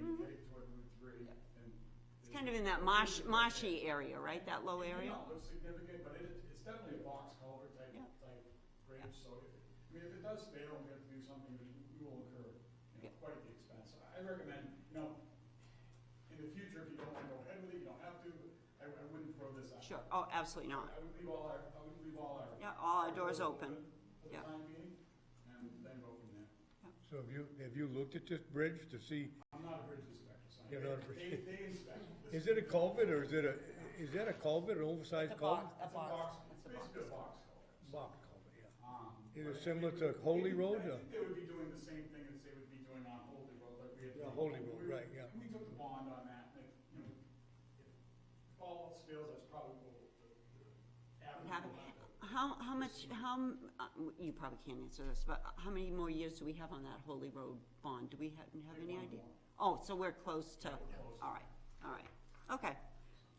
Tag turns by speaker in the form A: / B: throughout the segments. A: Mm-hmm. kind of in that marsh, marshy area, right, that low area?
B: No, it's significant, but it, it's definitely a box culvert type,
A: Yeah.
B: type bridge, so if, I mean, if it does fail, we have to do something, but we will incur, you
A: Yeah.
B: know, quite the expense. I recommend, you know, in the future, if you don't wanna go ahead with it, you don't have to, I, I wouldn't throw this out.
A: Sure, oh, absolutely not.
B: I would leave all our, I would leave all our.
A: Yeah, all our doors open.
B: For
A: Yeah.
B: the time being, and then go from there.
C: So have you, have you looked at this bridge to see,
B: I'm not a bridge inspector, so. I-
C: You're not a bridge-
B: They, they inspect. this.
C: is it a culvert or is it a, is that a culvert, an oversized culvert?
B: It's a box, it's basically a box culvert.
C: Box culvert, yeah.
B: Um,
C: Is
B: but
C: it
B: I
C: similar
B: think
C: to
B: we-
C: Holy
B: we-
C: Road,
B: I
C: or-
B: think they would be doing the same thing as they would be doing on Holy Road, like we had.
C: Yeah, Holy Road,
B: we-
C: right, yeah.
B: We took the bond on that, like, you know, if all else fails, that's probably what the, the average
A: Happy-
B: will have to-
A: How, how much, how, m- uh, you probably can't answer this, but how many more years do we have on that Holy Road bond? Do we have, have any idea? Oh, so we're close to, all right, all right, okay,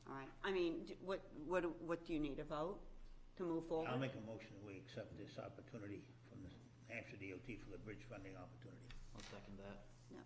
A: all right. I mean, d- what, what, do- what do you need, a vote to move forward?
D: I'll make a motion that we accept this opportunity from the Hampshire DOT for the bridge funding opportunity.
E: I'll second that.
A: No.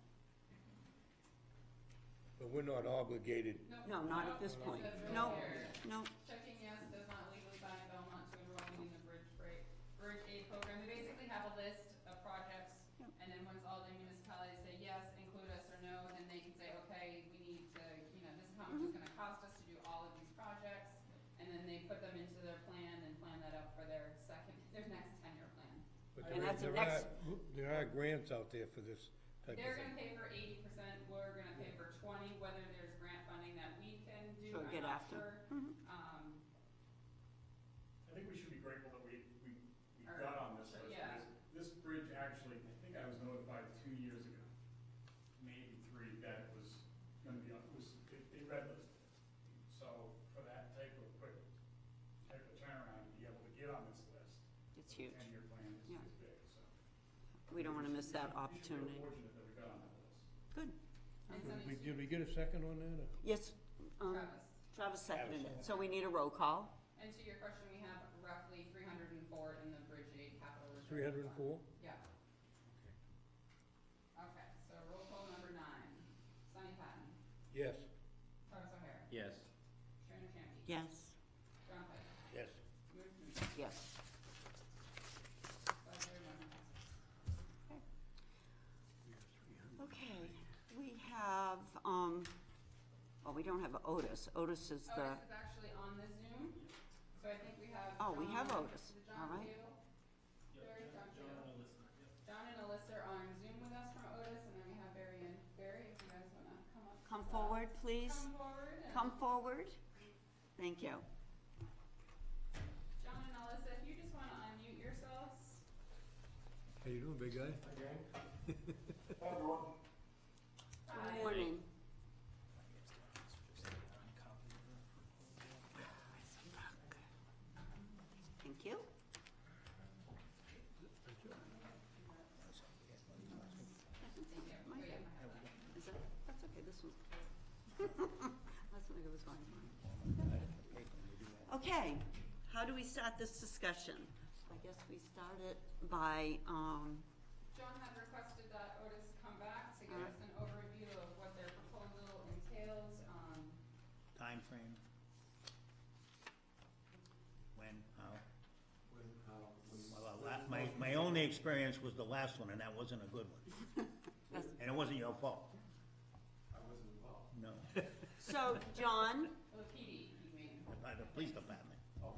C: But we're not obligated.
A: No, not at this point.
F: It says
A: No,
F: right here,
A: no,
F: Checking yes does not legally bind Belmont to enrolling in the bridge break, bridge aid program. We basically have a list of projects,
A: Yep.
F: and then once all the municipalities say yes, include us or no, then they can say, okay, we need to, you know, this is how much
A: Mm-hmm.
F: it's gonna cost us to do all of these projects. And then they put them into their plan and plan that up for their second, their next ten-year plan.
C: but
A: And
C: there-
A: that's the
C: there
A: next-
C: are- There are grants out there for this type of
F: They're
C: thing.
F: gonna pay for eighty percent, we're gonna pay for twenty, whether there's grant funding that we can do,
A: Sure,
F: I'm
A: get
F: not
A: after Mm-hmm. 'em.
F: sure. Um,
B: I think we should be grateful that we, we, we
F: Or-
B: got on this
F: so,
B: list,
F: yeah.
B: because this bridge actually, I think I was notified two years ago, maybe three, that it was gonna be, on- it was, they, they red listed. it. So for that type of quick, type of turnaround, to be able to get on this list,
A: it's huge.
B: ten-year plan is,
A: Yeah.
B: is big, so.
A: We don't wanna miss
B: We
A: that
B: should-
A: opportunity.
B: We should feel fortunate that we got on that list.
A: Good.
F: and
C: Did
F: something
C: we- Did we get a second on that? or-
A: Yes, um,
F: Travis.
A: Travis seconded it, so we need a roll call.
F: And to your question, we have roughly three hundred and four in the Bridge Aid Capital Reserve.
C: 304?
F: Fund. Yeah. Okay, so roll call number nine, Sonny Patton,
C: Yes.
F: Travis O'Hare,
E: Yes.
F: Sharon Champney.
A: Yes.
F: John Pike,
D: Yes.
F: Luke Kuechly,
A: Yes.
F: five zero one passes.
A: Okay, we have, um, well, we don't have Otis. Otis is the,
F: Otis is actually on the Zoom, so I think we have.
A: Oh, we have
F: John-
A: Otis.
F: is it
A: All right.
F: John Keel? Barry, John Keel. John and Alyssa are on Zoom with us from Otis, and then we have Barry and Barry, if you guys wanna come up. to
A: come
F: the-
A: forward, please.
F: Come forward and.
A: Come forward. Thank you.
F: John and Alyssa, if you just wanna unmute yourselves.
C: How you doing, big guy?
F: Hi.
A: Good morning. Thank you. Is that, that's okay, this one's. That's what it was going for. Okay, how do we start this discussion? I guess we start it by, um,
F: John had requested that Otis come back to give us an overview of what their proposal entails, um,
D: Timeframe? When, how? Well, uh, la- my, my only experience was the last one, and that wasn't a good one. And it wasn't your fault. I wasn't involved. No,
A: so, John,
F: the E PD, you mean.
D: by the police department.
G: Uh,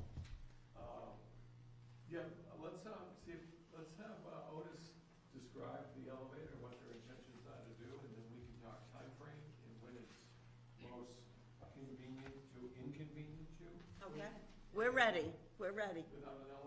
G: Yeah, uh, let's, um, see, if- let's have uh, Otis describe the elevator, what their intentions are to do, and then we can talk timeframe and when it's most convenient to inconvenience you
A: okay, we're ready, we're ready.
G: without an elevator.